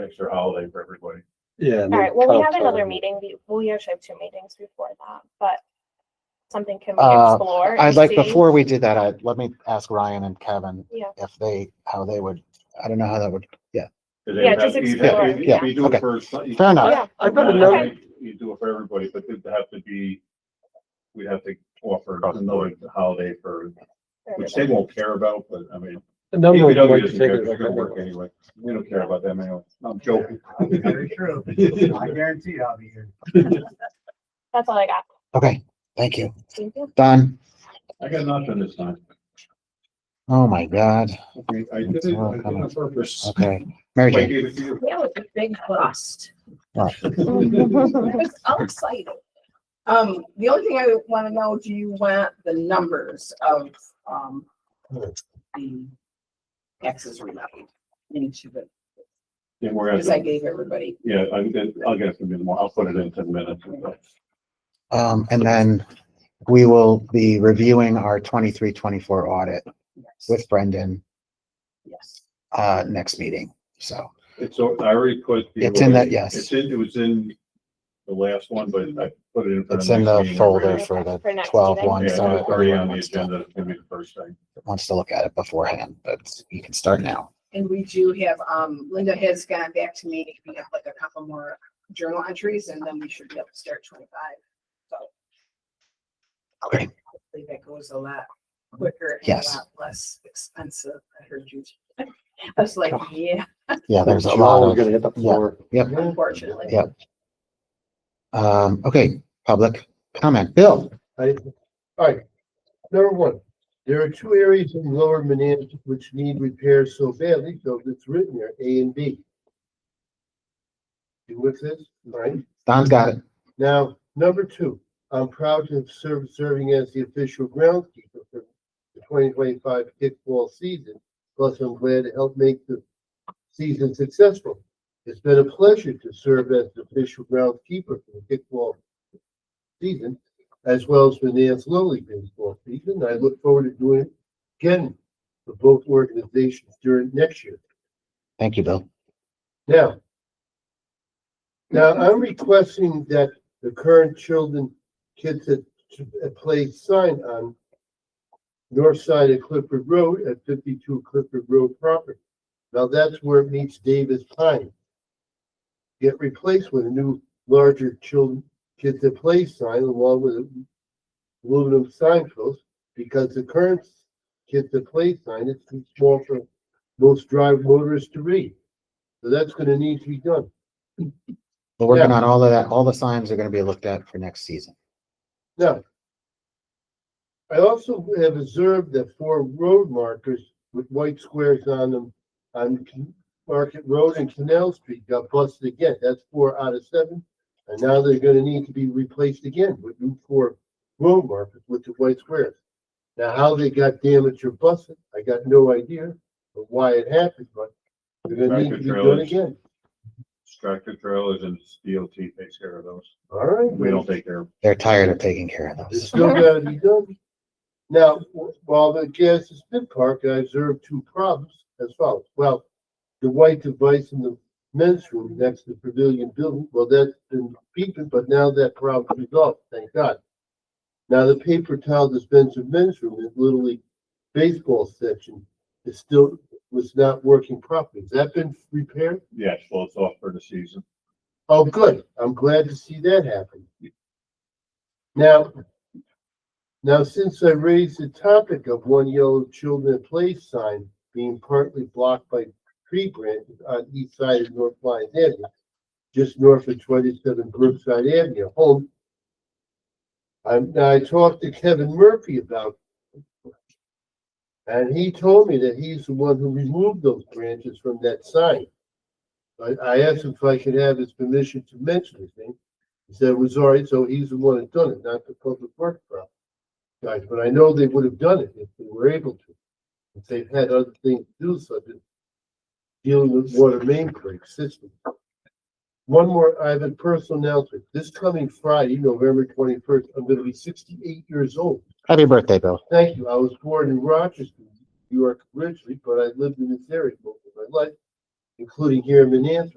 extra holiday for everybody. Yeah. All right, well, we have another meeting, be- we actually have two meetings before that, but something can we Uh, explore? and I'd like, see? before we do that, I, let me ask Ryan and Kevin Yeah. if they, how they would, I don't know how that would, Because Yeah, you'd have- just you'd explore, have- yeah, You do okay. it for. some- you- fair enough. Oh, Yeah, I- I've got not another, every- You do it for everybody, but it'd have to be, we'd have to offer another holiday for, there we which go. they won't care about, but I mean. a number of DPW ways doesn't to care, take It's not gonna work it. anyway. We don't care about them anyway. I'm joking. Very true. I guarantee I'll be here. That's all I got. Okay, thank you. Thank you. Done. I got nothing this time. Oh my God. Okay, I did it, I did it on purpose. Okay. Mary I Jane. gave it to you. That was a big bust. Oh, Mhm. I'm excited. Um, the only thing I want to know, do you want the numbers of, um, the taxes remitted into the, Yeah, we're because I gonna, gave everybody. yeah, I'm gonna, I'll get it from you tomorrow. I'll put it in ten minutes. Um, and then we will be reviewing our twenty-three, twenty-four audit Yes, with Brendan, yes. uh, next meeting. So, It's, al- I already put. the- It's in that- yes. It's in, it was in the last one, but I put it in. for It's in next the meeting. folder for the For next 12 meeting. one, Yeah, it's so- already on the agenda. It's gonna be the first thing. wants to look at it beforehand, but you can start now. And we do have, um, Linda has gone back to me, we have like a couple more journal entries and then we should be able to start twenty-five, so. Okay. Hopefully that goes a lot quicker and a Yes. lot less expensive. I heard you. I was like, yeah, Yeah, there's a You're lot always of, Gonna hit the floor. unfortunately. Oh. Yeah. um, okay, public comment. Bill? I, all right, number one, there are two areas in lower Manans which need repair so badly, so it's written there, A and B. You with this, right? Don's got it. Now, number two, I'm proud to have served, serving as the official groundskeeper for the twenty twenty-five kickball season. Plus, I'm glad to help make the season successful. It's been a pleasure to serve as the official groundskeeper for the kickball season, as well as for the Nance Little League baseball season. I look forward to doing it again for both organizations during next year. Thank you, Bill. Now, now I'm requesting that the current children, kids at, at play sign on north side of Clifford Road at fifty-two Clifford Road property. Now that's where it meets Davis Pine. Get replaced with a new larger children, kids at play sign along with a aluminum sign post because the current kids at play sign is too small for most drive motorists to read. So that's gonna need to be done. We're working Yeah. on all of that. All the signs are gonna be looked at for next season. Now, I also have observed that four road markers with white squares on them on Can- Market Road and Canal Street got busted again. That's four out of seven. And now they're gonna need to be replaced again with new four road markers with the white squares. Now, how they got damaged or busted, I got no idea of why it happened, but they're gonna need to be done Tractor-trailers. again. Tractor trailers and DOT takes care of those. All right. We don't take care of. They're tired of taking care of It's those. still gotta be done. Now, while the gas is been parked, I observed two problems as follows. Well, the white device in the men's room next to the pavilion building, well, that's been beeping, but now that problem is off, thank God. Now, the paper towel dispenser men's room in Little League baseball section is still, was not working properly. Has that been repaired? Yes, well, it's off for the season. Oh, good. I'm glad to see that happen. Now, now, since I raised the topic of one yellow children at play sign being partly blocked by tree branches on east side of North Lyons Avenue, just north of twenty-seven Brookside Avenue, home. I'm, now I talked to Kevin Murphy about it, and he told me that he's the one who removed those branches from that sign. I, I asked him if I could have his permission to mention the thing. He said it was all right, so he's the one that done it, not the public works problem. Guys, but I know they would have done it if they were able to. If they've had other things to do, such as dealing with water main break system. One more, I have a personal announcement. This coming Friday, November twenty-first, I'm gonna be sixty-eight years old. Happy birthday, Bill. Thank you. I was born in Rochester, New York originally, but I lived in this area most of my life, including here in Manantee.